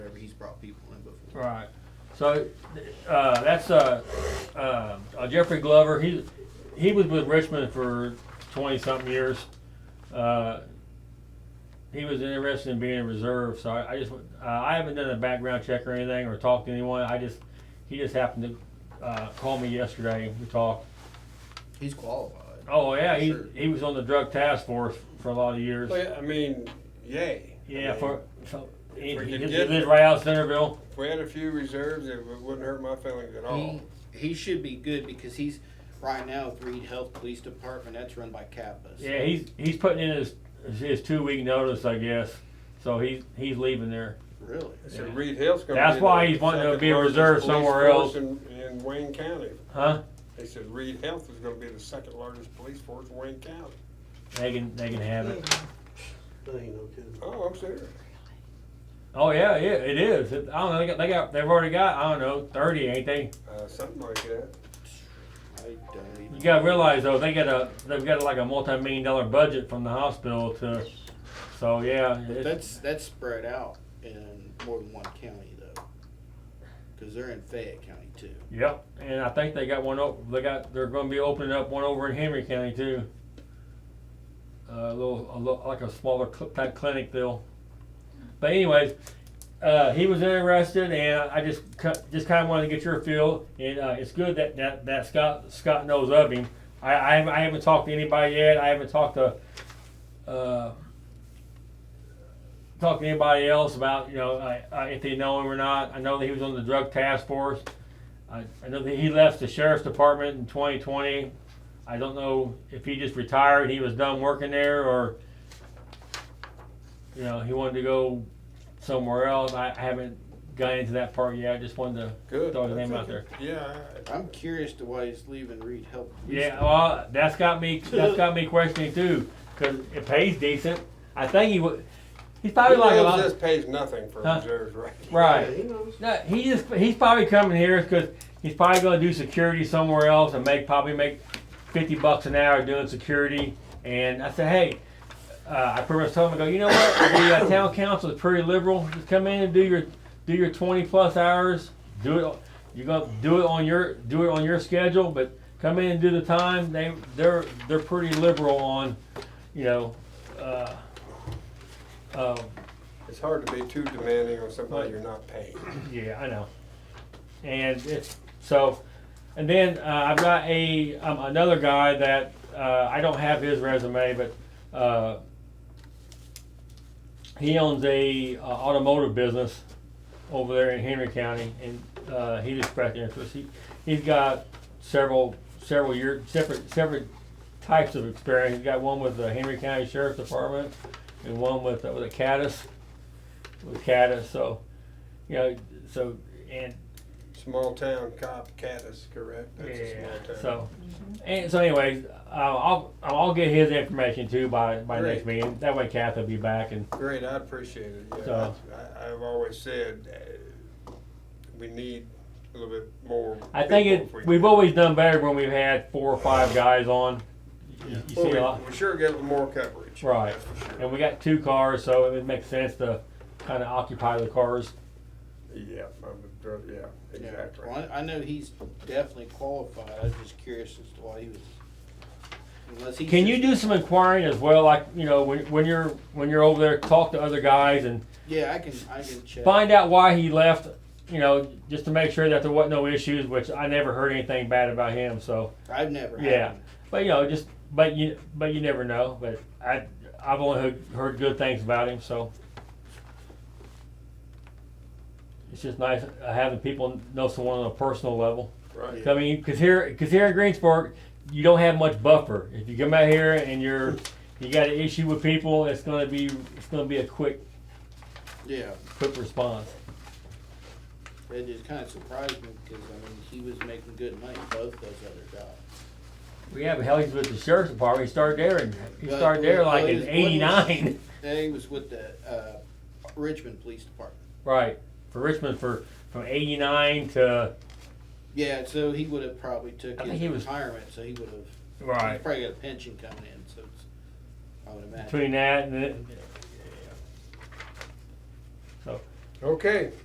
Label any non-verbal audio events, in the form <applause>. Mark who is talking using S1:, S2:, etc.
S1: brought people in before.
S2: Right. So, uh, that's, uh, uh, uh, Jeffrey Glover, he, he was with Richmond for twenty-something years. Uh, He was interested in being in reserve, so I, I just, went- uh, I haven't done a background check or anything, or talked to anyone, I just, he just happened to, uh, call me yesterday, we talked.
S1: He's qualified.
S2: Oh, yeah, he,
S1: Sure.
S2: he was on the drug task force for a lot of years.
S3: Well, Oh, yeah, I mean, yay. I
S2: Yeah,
S3: mean,
S2: for, so, he,
S3: we
S2: he
S3: could
S2: lived-
S3: get-
S2: he lived right out of Centerville.
S3: If we had a few reserves, it wou- wouldn't hurt my feelings
S4: Oh.
S3: at all.
S1: He, he should be good because he's right now with Reed Health Police Department. That's run by Kappas.
S2: Yeah, he's he's putting in his his two week notice, I guess. So he's he's leaving there.
S1: Really?
S3: So
S2: Yeah.
S3: Reed Hill's gonna
S2: That's
S3: be
S2: why
S3: the
S2: he's wanting to
S3: second
S2: be a
S3: largest
S2: reserve
S3: police
S2: somewhere else.
S3: force In, in Wayne County.
S2: Huh?
S3: They said Reed Health is gonna be the second largest police force in Wayne County.
S2: They can they can have it.
S4: That ain't no kidding.
S3: Oh, I'm serious.
S2: Oh yeah, yeah, it is. It- I don't know, they got they got they've already got, I don't know, thirty, ain't they?
S3: Uh, something like that.
S1: I don't even.
S2: You gotta realize though, they got a they've got like a multi million dollar budget from the hospital to so yeah,
S1: But
S2: it's-
S1: that's that's spread out in more than one county though, because they're in Fayette County too.
S2: Yep, and I think they got one op- they got, they're gonna be opening up one over in Henry County too. Uh, a little, a little, like a smaller cl- type clinic deal. But anyways, uh, he was interested and I just cut, just kinda wanted to get your feel and, uh, it's good that, that, that Scott, Scott knows of him. I, I haven't, I haven't talked to anybody yet, I haven't talked to, uh, talked to anybody else about, you know, I, I, if they know him or not. I know that he was on the drug task force. I, I know that he left the sheriff's department in 2020. I don't know if he just retired, he was done working there, or you know he wanted to go somewhere else. I, I haven't got into that part yet. I just wanted to
S3: Good.
S2: throw his
S3: I
S2: name
S3: think
S2: out there.
S3: it- Yeah. I-
S1: I'm curious to why he's leaving Reed Health. Police
S2: Yeah, well, that's got me. That's got me questioning too, because it pays decent. I think he would. He's probably
S3: Reed
S2: like a
S3: Hills
S2: lot.
S3: just pays nothing for
S2: Huh?
S3: reserves, right?
S2: right.
S4: Yeah, he knows.
S2: No, he just he's probably coming here because he's probably going to do security somewhere else and make probably make fifty bucks an hour doing security. And I said, hey, uh, I pretty much told him, I go, you know what? The uh, town council is pretty liberal. Just come in and do your do your twenty plus hours. Do it. You're gonna do it on your do it on your schedule, but come in and do the time. They they're they're pretty liberal on, you know. Uh, uh,
S3: It's hard to be too demanding on somebody you're not paying.
S2: yeah, I know. And it's so, and then uh, I've got a um, another guy that uh, I don't have his resume, but uh, he owns a uh, automotive business over there in Henry County, and uh, he just expressed interest. He he's got several several year separate separate types of experience. He's got one with the Henry County Sheriff's Department, and one with uh, with a Caddis, with Caddis. So you know, so and
S3: Small town cop, Caddis, correct? That's
S2: yeah,
S3: a small town.
S2: so and so. Anyways, uh, I'll I'll get his information too by by next
S3: Great.
S2: meeting. That way, Kath will be back and
S3: Great, I appreciate it, yeah.
S2: So-
S3: that's- I, I've always said, uh, we need a little bit more.
S2: I think
S3: people
S2: it.
S3: if we
S2: We've
S3: can.
S2: always done better when we've had four or five guys on. You, you
S3: Well,
S2: see
S3: we-
S2: a lot,
S3: We sure get more coverage.
S2: right?
S3: that's for sure.
S2: And we got two cars, so it would make sense to kind of occupy the cars.
S3: Yeah, I'm, a drug- yeah,
S1: Yeah.
S3: exactly.
S1: Well, I I know he's definitely qualified. I was just curious as to why he was. Unless he.
S2: Can you do some inquiring as well? Like you know, when when you're when you're over there, talk to other guys and
S1: Yeah, I can. I can check.
S2: find out why he left. You know, just to make sure that there wasn't no issues, which I never heard anything bad about him. So,
S1: I've never. had
S2: Yeah.
S1: one.
S2: but you know, just but you but you never know. But I I've only heard, heard good things about him. So it's just nice uh, having people know someone on a personal level.
S3: Right.
S2: I mean, because here because here in Greensburg, you don't have much buffer. If you come out here and you're you got an issue with people, it's gonna be it's gonna be a quick
S1: Yeah.
S2: quick response.
S1: It just kind of surprised me because I mean he was making good money both those other jobs.
S2: We have hell, he's with the sheriff's department. He started there, and he
S1: But
S2: started there
S1: what-
S2: like
S1: what
S2: in
S1: is- what is-
S2: '89.
S1: <laughs> And he was with the uh, Richmond Police Department.
S2: <laughs> Right for Richmond for from '89 to
S1: Yeah, so he would have probably took
S2: I
S1: his
S2: think he was-
S1: retirement, so he would have. He's probably got a pension coming in, so it's, I would imagine.
S2: between that and. It, so
S3: Okay,